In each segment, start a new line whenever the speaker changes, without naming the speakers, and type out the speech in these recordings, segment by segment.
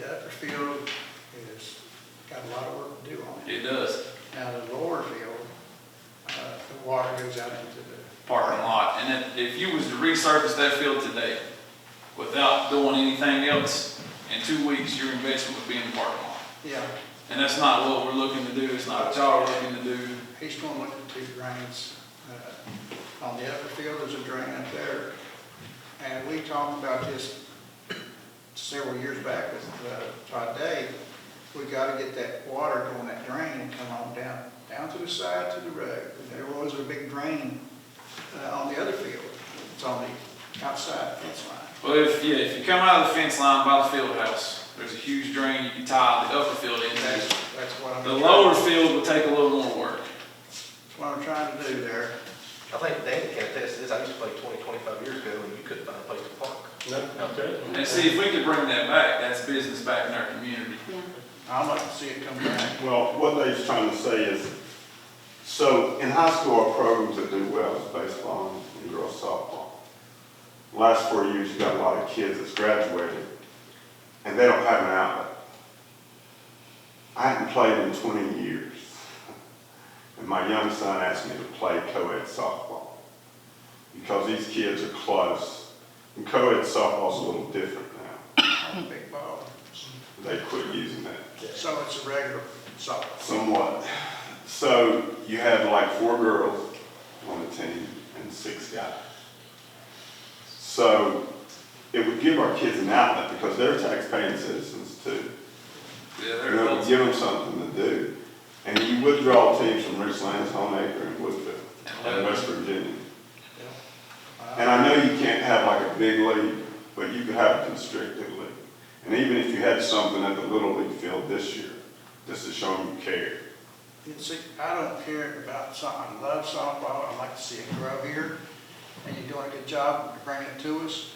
field is, got a lot of work to do on it.
It does,
Now, the lower field, uh, the water goes out into the,
parking lot. And if- if you was to resurface that field today without doing anything else, in two weeks, your investment would be in the parking lot.
yeah,
And that's not what we're looking to do, it's not what y'all are looking to do.
he's going with the two drains. uh, On the upper field, there's a drain up there. And we talked about this several years back with uh, Todd Day. We gotta get that water going that drain and come on down, down to the side to the road. There was a big drain uh, on the other field. It's on the outside fence line.
Well, if, yeah, if you come out of the fence line by the field house, there's a huge drain, you can tie the upper field
That's,
into.
that's what I'm.
The lower field would take a little more work.
That's what I'm trying to do there.
I think Dan can attest to this, I used to play 20, 25 years ago, and you couldn't find a place to park.
And see, if we could bring that back, that's business back in our community.
Yeah,
I'd like to see it come back.
Well, what they're trying to say is, so in high school, our programs that do well is baseball and girls softball. Last four years, you got a lot of kids that's graduated, and they don't have an outlet. I hadn't played in twenty years, and my young son asked me to play co-ed softball, because these kids are close, and co-ed softball's a little different now,
on the big ball.
they quit using that.
So it's a regular softball.
Somewhat. So you had like four girls on the team and six guys. So it would give our kids an outlet because they're taxpaying citizens too.
Yeah,
You
there
know, it would
it is.
give them something to do. And you would draw teams from Richlands, Homeacre, and Woodville, and West Virginia. And I know you can't have like a big league, but you could have a constricted league. And even if you had something at the Little League field this year, just to show them you care.
You see, I don't care about something, I love softball, I like to see it grow here, and you're doing a good job of bringing it to us.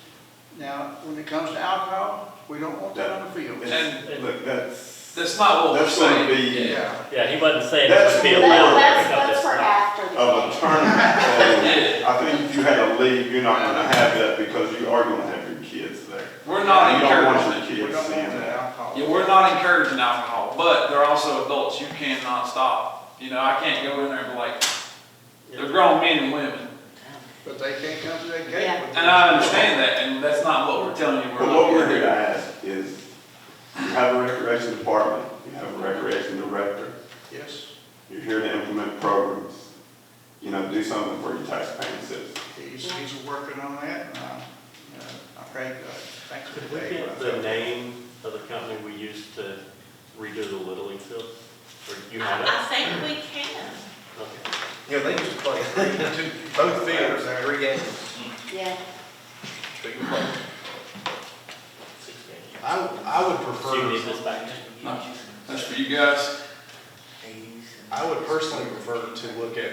Now, when it comes to alcohol, we don't want that on the field.
And look, that's,
That's not what we're
that's gonna
saying.
be
Yeah,
Yeah, he wasn't saying it
That's
would be
more-
allowed
That-
to
that's,
pick up
that's
this
for
stuff.
after the
of a
game.
tournament. And I think if you had a league, you're not gonna have that because you are gonna have your kids there.
We're not
You don't want
encouraging
your
it.
we don't
kids
want
seeing
that
that.
alcohol.
Yeah, we're not encouraging alcohol, but they're also adults. You cannot stop. You know, I can't go in there and be like, they're grown men and women.
But they can't come to that
Yeah.
gate. with
And I understand that, and that's not what we're telling you.
But
We're
what we're
looking to do.
here to ask is, you have a recreation department, you have a recreation director,
Yes,
you're here to implement programs. You know, do something for your taxpaying citizens.
he's, he's working on that, and I, uh, I pray, God, thanks for
Could
the
we
day.
get the name of the company we used to redo the Little League field? Or you have it?
I think we can.
Okay.
You know, they used to play, two- both fields, three games.
Yeah,
So you play.
Six games.
I, I would
So you need this
prefer,
back?
No, That's for you guys.
I would personally prefer to look at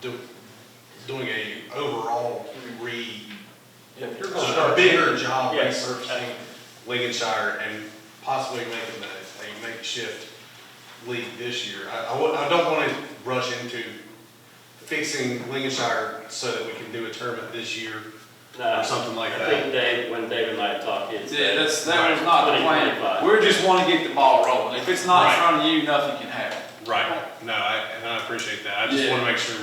do- doing a overall re, a bigger job
Yes.
resurfacing Lincolnshire and possibly making a, a makeshift league this year. I, I would- I don't want to rush into fixing Lincolnshire so that we can do a tournament this year
No.
or something like
Uh, I
that.
think Dave, when Dave and I talked, it's.
Yeah, that's, that was not the plan. We just want to get the ball rolling. If it's not in front of you, nothing can happen.
Right, no, I, and I appreciate that, I just
Yeah.
wanna make sure,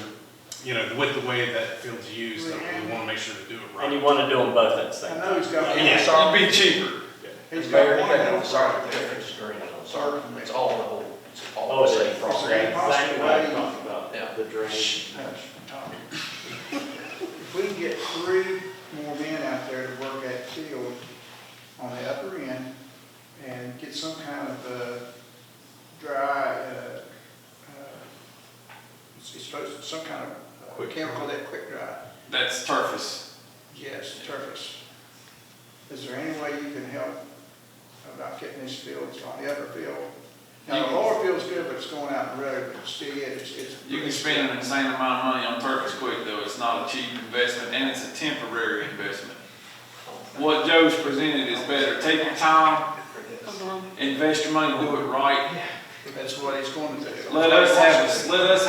you know, with the way that field's used, that we wanna make sure to do it
And you
right.
want to do them both at the same
I
time.
know he's got,
Yeah.
he's got
It'd be cheaper.
one
I'm
head
sorry,
start
the
there.
difference is green on
Sorry.
sorry. It's all the whole, it's all
Oh,
the
it
same
is.
problem.
Same problem.
Exactly what I talked about, the drainage.
Hush, Tom. If we can get three more men out there to work that field on the upper end and get some kind of, uh, dry, uh, uh, it's supposed, some kind of uh,
Quick
chemical that quick dry,
That's turfus.
yes, turfus. Is there any way you can help about getting these fields on the upper field? Now, the lower field's good, but it's going out in the road, but still, it's, it's.
You can spend an insane amount of money on turfus quick, though. It's not a cheap investment, and it's a temporary investment. What Joe's presented is better. Take your time,
come on.
invest your money, do it right.
That's what he's going to do.
Let us have, a- let us